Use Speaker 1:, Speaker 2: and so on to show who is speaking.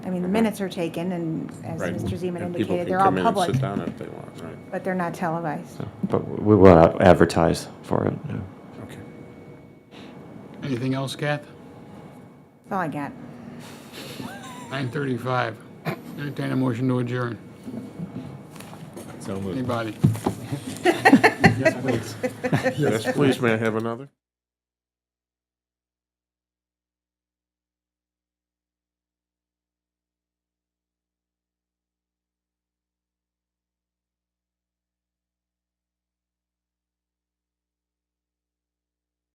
Speaker 1: mean, the minutes are taken, and as
Speaker 2: Right.
Speaker 1: Mr. Zeman
Speaker 2: And people
Speaker 1: indicated,
Speaker 2: can
Speaker 1: they're all
Speaker 2: come in and
Speaker 1: public,
Speaker 2: Sit down if they want, right?
Speaker 1: but they're not televised.
Speaker 3: But we will advertise for it. yeah.
Speaker 2: Okay.
Speaker 4: Anything else, Kath?
Speaker 1: That's all I got.
Speaker 4: 9:35. Entertain a motion to adjourn.
Speaker 2: So moved.
Speaker 4: Anybody?
Speaker 2: Yes, please, may I have another?